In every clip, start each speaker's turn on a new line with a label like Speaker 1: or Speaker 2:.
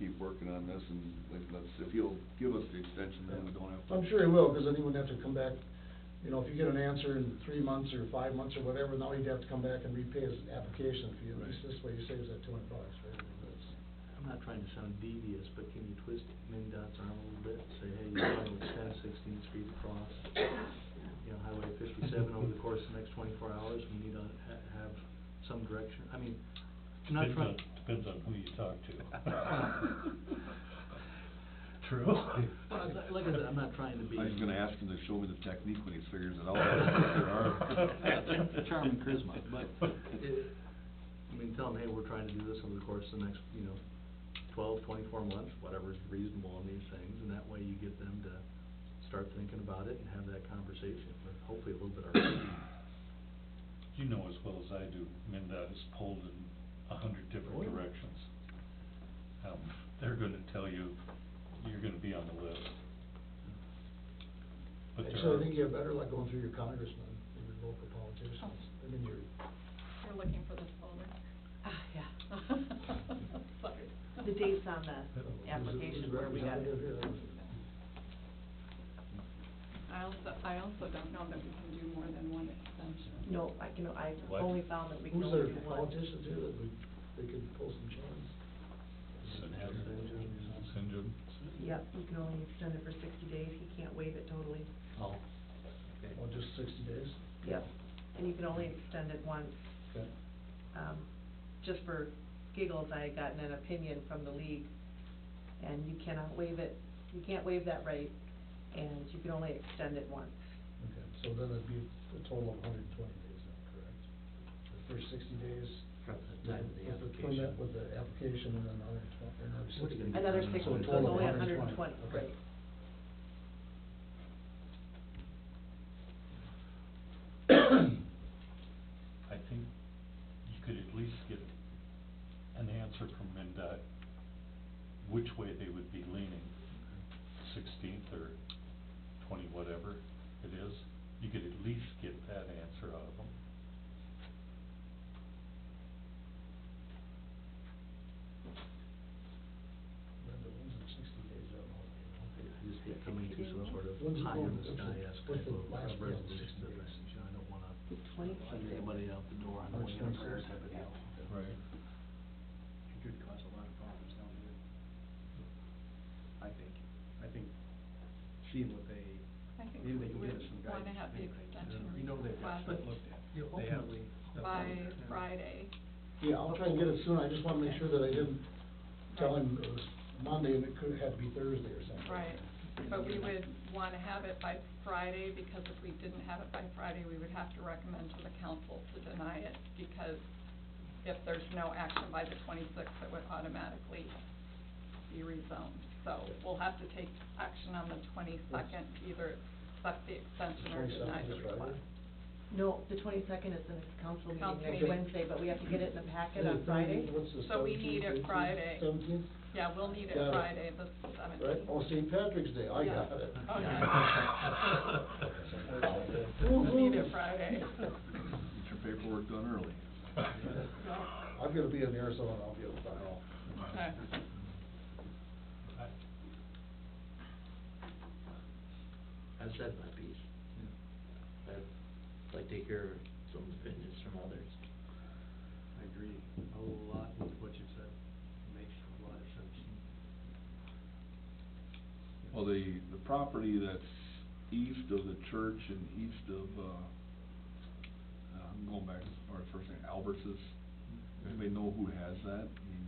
Speaker 1: on this and like, let's, if he'll give us the extension, then we don't have to.
Speaker 2: I'm sure he will, because then he wouldn't have to come back, you know, if you get an answer in three months or five months or whatever, now he'd have to come back and repay his application fee. At least
Speaker 1: Right.
Speaker 2: this way he saves that two hundred bucks, right? That's-
Speaker 3: I'm not trying to sound devious, but can you twist MinDOT's arm a little bit, say, hey, you're going to extend Sixteenth Street across, you know, Highway fifty-seven over the course of the next twenty-four hours, we need to ha- have some direction, I mean, I'm not
Speaker 4: Depends
Speaker 3: trying.
Speaker 4: on- Depends on who you talk to.
Speaker 3: True. Like I said, I'm not trying to be.
Speaker 1: I was gonna ask him to show me the technique when he figures it out. There are-
Speaker 3: Charm and charisma, but it, I mean, tell them, hey, we're trying to do this over the course of the next, you know, twelve, twenty-four months, whatever's reasonable on these things, and that way you get them to start thinking about it and have that conversation, but hopefully a little bit earlier.
Speaker 4: You know as well as I do, MinDOT is pulled in a hundred
Speaker 3: Oh,
Speaker 4: different
Speaker 3: yeah.
Speaker 4: directions. Um, they're gonna tell you, you're gonna be on the list. But
Speaker 1: uh,
Speaker 4: there
Speaker 2: Actually, I
Speaker 4: are-
Speaker 2: think you have better luck going through your congressman and your local
Speaker 5: Oh.
Speaker 2: politicians. I mean, your, uh,
Speaker 6: You're looking for this folder?
Speaker 5: Ah, yeah.
Speaker 6: Sorry.
Speaker 5: The dates on the
Speaker 2: Yeah.
Speaker 5: application where we got it.
Speaker 6: I also, I also don't know that we can do more than one extension.
Speaker 5: No, I can, I
Speaker 4: What?
Speaker 5: only found that we can
Speaker 2: who's
Speaker 5: only
Speaker 2: their
Speaker 5: do one.
Speaker 2: politician too, that would, they could pull some charms?
Speaker 4: Sinjin, Sinjin.
Speaker 5: Yep, we can only extend it for sixty days, he can't waive it totally.
Speaker 3: Oh.
Speaker 2: Well, just sixty days?
Speaker 5: Yep. And you can only extend it once.
Speaker 2: Okay.
Speaker 5: Um, just for giggles, I had gotten an opinion from the league, and you cannot waive it, you can't waive that right, and you can only extend it once.
Speaker 2: Okay, so then it'd be a total of hundred and twenty days, then, correct? The first sixty days.
Speaker 3: From the time of the
Speaker 2: with
Speaker 3: application.
Speaker 2: permit, With the application and then another twenty, or another
Speaker 3: What
Speaker 2: sixty.
Speaker 3: are you gonna get?
Speaker 5: Another six,
Speaker 3: So
Speaker 5: so
Speaker 3: a
Speaker 5: it's
Speaker 3: total of
Speaker 5: only a hundred and twenty,
Speaker 2: Okay.
Speaker 5: right.
Speaker 4: I think you could at least get an answer from MinDOT, which way they would be leaning, sixteenth or twenty, whatever it is. You could at least get that answer out of them.
Speaker 2: Then the ones in sixty days are all, you know.
Speaker 3: Just be coming to some sort of
Speaker 2: When's the
Speaker 3: high in the
Speaker 2: vote?
Speaker 3: sky, ask
Speaker 2: What's the
Speaker 3: people
Speaker 2: last
Speaker 3: about
Speaker 2: bill?
Speaker 3: resolution, to this, you know, I don't wanna
Speaker 5: Twenty.
Speaker 3: send anybody out the door, I don't wanna embarrass anybody else.
Speaker 4: Right.
Speaker 7: It could cause a lot of problems down the road. I think, I think seeing what they,
Speaker 6: I think we
Speaker 7: maybe they can
Speaker 6: would
Speaker 7: give us some guidance.
Speaker 6: wanna have the extension
Speaker 7: You know, they've got stuff
Speaker 6: requested
Speaker 7: looked at.
Speaker 3: Yeah,
Speaker 7: They have
Speaker 3: ultimately-
Speaker 7: stuff
Speaker 6: by
Speaker 7: looked at.
Speaker 6: Friday.
Speaker 2: Yeah, I'll try and get it soon, I just wanna make sure that I didn't tell him it was Monday and it could have to be Thursday or something.
Speaker 6: Right, but we would wanna have it by Friday, because if we didn't have it by Friday, we would have to recommend to the council to deny it, because if there's no action by the twenty-sixth, it would automatically be rezoned. So we'll have to take action on the twenty-second, either accept the extension or deny the
Speaker 2: 22nd is Friday?
Speaker 6: request.
Speaker 5: No, the twenty-second is the next council
Speaker 6: Council
Speaker 5: meeting next
Speaker 6: meeting.
Speaker 5: Wednesday, but we have to get it in the packet
Speaker 2: Is
Speaker 5: on
Speaker 2: it
Speaker 5: Friday.
Speaker 2: What's the
Speaker 6: So we need it
Speaker 2: seventeenth,
Speaker 6: Friday.
Speaker 2: Seventeenth,
Speaker 6: Yeah, we'll need it
Speaker 2: Got it.
Speaker 6: Friday, the
Speaker 2: right,
Speaker 6: seventeenth.
Speaker 2: oh, St. Patrick's Day, I got it.
Speaker 6: Oh, yeah. We'll need it Friday.
Speaker 1: Get your paperwork done early.
Speaker 2: I'm gonna be in Arizona, I'll be able to file.
Speaker 6: Okay.
Speaker 8: I've said my piece. I'd like to hear some opinions from others.
Speaker 7: I agree a lot with what you said. Makes a lot of sense.
Speaker 1: Well, the, the property that's east of the church and east of, uh, uh, I'm going back as far as first name, Alberts's, anybody know who has that? I mean,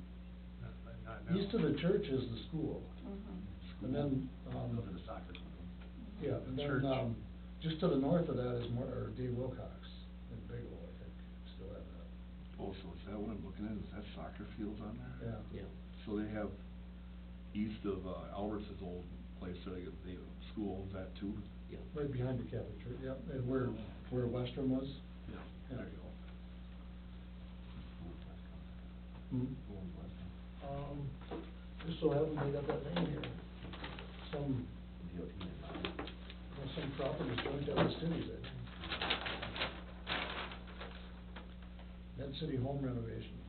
Speaker 2: East of the church is the school,
Speaker 6: Mhm.
Speaker 1: school?
Speaker 2: and then, um,
Speaker 1: Over the soccer. field.
Speaker 2: yeah, and
Speaker 1: Church.
Speaker 2: then, um, just to the north of that is more, or Dave Wilcox in Bigelow, I think, still have that,
Speaker 1: Oh, so is that what I'm looking at, is that soccer fields on there?
Speaker 2: yeah.
Speaker 8: Yeah.
Speaker 1: So they have, east of uh, Alberts's old place, so they, they, school owns that too?
Speaker 8: Yeah.
Speaker 2: Right behind the Catholic church, yep, and where, where Western was.
Speaker 1: Yeah. There you go. Who owns Western?
Speaker 2: Um, just so happens I got that name here, some, well, some properties joined other cities, I think. Med City Home Renovation.